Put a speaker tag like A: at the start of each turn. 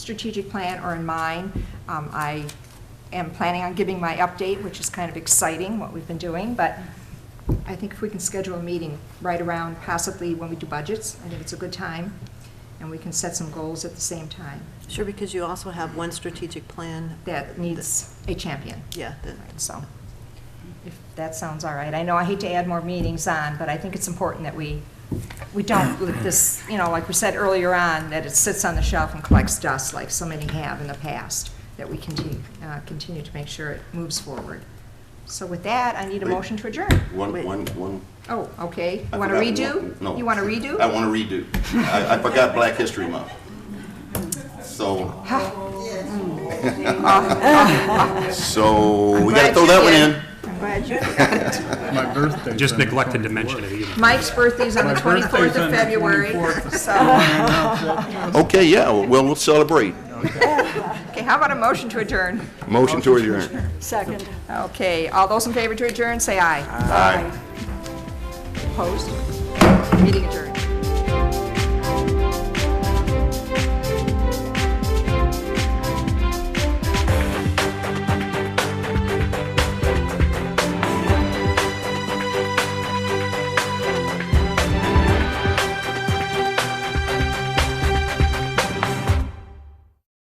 A: strategic plan or in mine. Um, I am planning on giving my update, which is kind of exciting, what we've been doing, but I think if we can schedule a meeting right around possibly when we do budgets, I think it's a good time, and we can set some goals at the same time
B: Sure, because you also have one strategic plan.
A: that needs a champion.
B: Yeah, that-
A: Right, So, if that sounds all right, I know I hate to add more meetings on, but I think it's important that we, we don't let this, you know, like we said earlier on, that it sits on the shelf and collects dust like so many have in the past, that we continue, uh, continue to make sure it moves forward. So with that, I need a motion to adjourn.
C: One,
B: Wait.
C: one, one.
A: Oh, okay,
C: I
A: you want to
C: forgot
A: redo?
C: one- No.
A: You want to redo?
C: I want to redo. I, I forgot Black History Month. So, so Oh, we
A: glad
C: gotta throw
A: you
C: that one
A: did.
C: in.
D: My birthday.
E: Just neglected to mention it either.
A: Mike's birthday's on the
D: My birthday's
A: 24th
D: on
A: of
D: the
A: February,
D: 24th.
A: so,
C: Okay, yeah, well, we'll celebrate.
A: okay, how about a motion to adjourn?
C: Motion to adjourn.
B: Second.
A: Okay, all those in favor to adjourn, say aye.
C: Aye.
A: Opposed? Meeting adjourned.